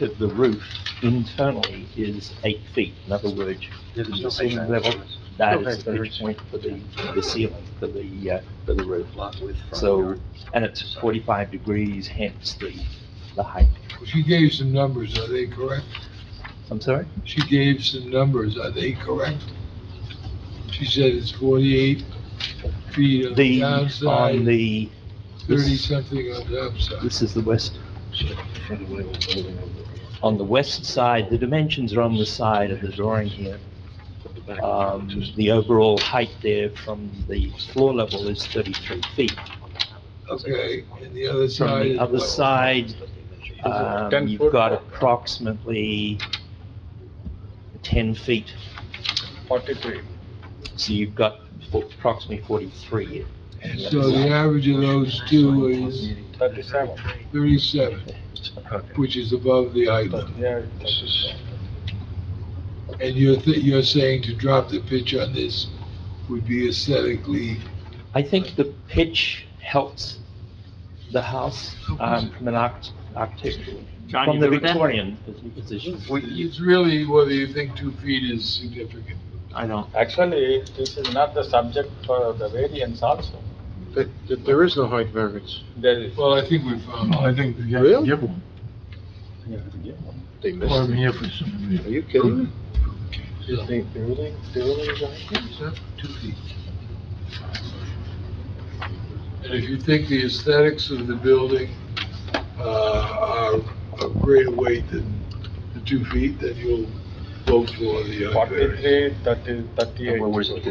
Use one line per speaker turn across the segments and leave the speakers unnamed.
the, the roof internally is eight feet. In other words, from the ceiling level, that is the pitch point for the, the ceiling, for the, uh, for the roof. So, and it's forty-five degrees, hence the, the height.
She gave some numbers, are they correct?
I'm sorry?
She gave some numbers, are they correct? She said it's forty-eight feet on the
The, on
downside,
the,
thirty-something on the upside.
this is the west, on the west side, the dimensions are on the side of the drawing here. Um, the overall height there from the floor level is thirty-three feet.
Okay, and the other
From
side
the
is
other
what?
side, um, you've got approximately ten feet,
Forty-three.
so you've got fo- approximately forty-three. on the
So
other
the
side.
average of those two is
Thirty-seven.
thirty-seven, which is above the height limit.
Yeah. 37.
And you're, th- you're saying to drop the pitch on this would be aesthetically,
I think the pitch helps the house, um, from an arch- architectural,
John,
from
you
the
good with that?
Victorian position.
it's really whether you think two feet is significant.
I don't.
Actually, this is not the subject for the variance also.
That, that there is no height variance.
There is.
Well, I think we found. I think.
Really?
Give one,
They missed
or
it.
here for some.
Are you kidding me?
Two feet. And if you think the aesthetics of the building, uh, are of greater weight than the two feet, then you'll vote for the uh, other variance.
Forty-three, thirty, thirty-eight.
Where was it?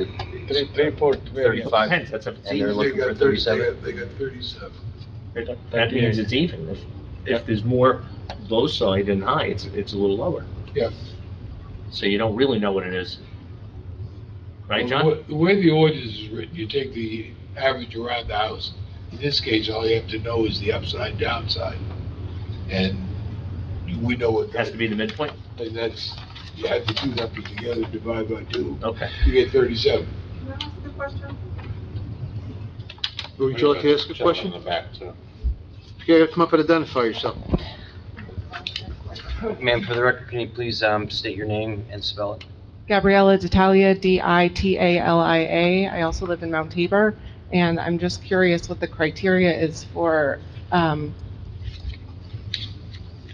Three, three-fourth variance.
Depends, that's a,
And they're
They
looking for
got thirty, they
thirty-seven.
got, they got thirty-seven.
that means it's even. If, if there's more low side than high, it's, it's a little lower.
Yeah.
So you don't really know what it is. Right,
Well,
John?
the wa- The way the ordinance is written, you take the average around the house. In this case, all you have to know is the upside downside. And we know what,
Has to
that-
be the midpoint?
and that's, you add the two numbers together, divide by two,
Okay.
you get thirty-seven.
Can I ask a question?
Would you like to ask a question? Yeah, come up and identify yourself.
Ma'am, for the record, can you please um, state your name and spell it?
Gabriella D'Italia, D-I-T-A-L-I-A. I also live in Mount Tabor, and I'm just curious what the criteria is for um,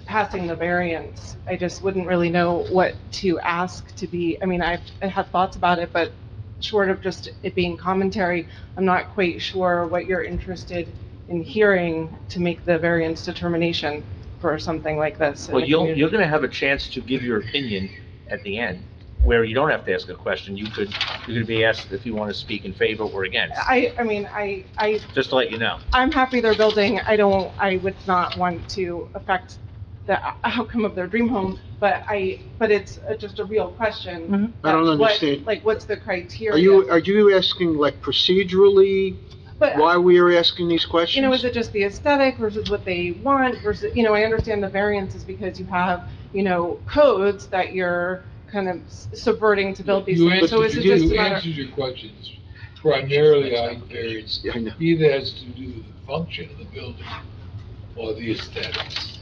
passing the variance. I just wouldn't really know what to ask to be, I mean, I I have thoughts about it, but short of just it being commentary, I'm not quite sure what you're interested in hearing to make the variance determination for something like this. in
Well,
the
you'll,
community.
you're gonna have a chance to give your opinion at the end, where you don't have to ask a question. You could, you're gonna be asked if you wanna speak in favor or against,
I, I mean, I, I,
just to let you know.
I'm happy they're building, I don't, I would not want to affect the outcome of their dream home, but I, but it's a- just a real question.
I don't
That's what-
understand.
Like, what's the criteria?
Are you, are you asking like procedurally,
But,
why we are asking these questions?
you know, is it just the aesthetic versus what they want versus, you know, I understand the variance is because you have, you know, codes that you're kind of s- subverting to build these
You
things, so
answered-
is it just a
You
matter?
answered your questions primarily on variance.
Yeah, I know.
Either has to do with the function of the building or the aesthetics.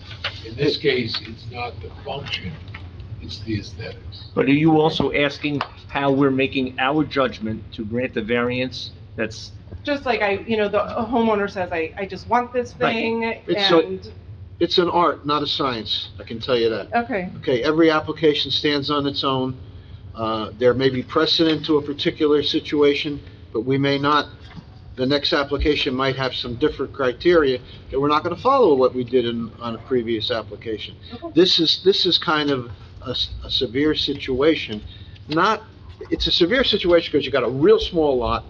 In this case, it's not the function, it's the aesthetics.
But are you also asking how we're making our judgment to grant the variance that's
Just like I, you know, the homeowner says, I, I just want this
Right.
thing,
It's so-
and,
It's an art, not a science, I can tell you that.
okay.
Okay, every application stands on its own. Uh, There may be precedent to a particular situation, but we may not, the next application might have some different criteria that we're not going to follow what we did in, on a previous application.
Okay.
This is, this is kind of a s- a severe situation, not, it's a severe situation because you got a real small lot,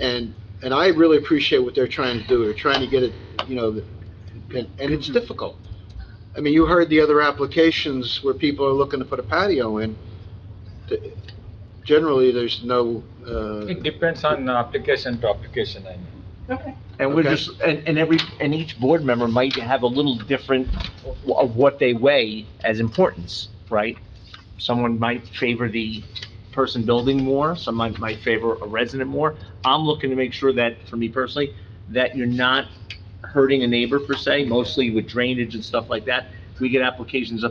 and, and I really appreciate what they're trying to do, they're trying to get it, you know, the- and, and it's difficult. I mean, you heard the other applications where people are looking to put a patio in. Th- Generally, there's no, uh,
It depends on application to application, I mean.
Okay.
And we're
Okay.
just, and, and every, and each board member might have a little different w- of what they weigh as importance, right? Someone might favor the person building more, some might, might favor a resident more. I'm looking to make sure that, for me personally, that you're not hurting a neighbor per se, mostly with drainage and stuff like that, we get applications up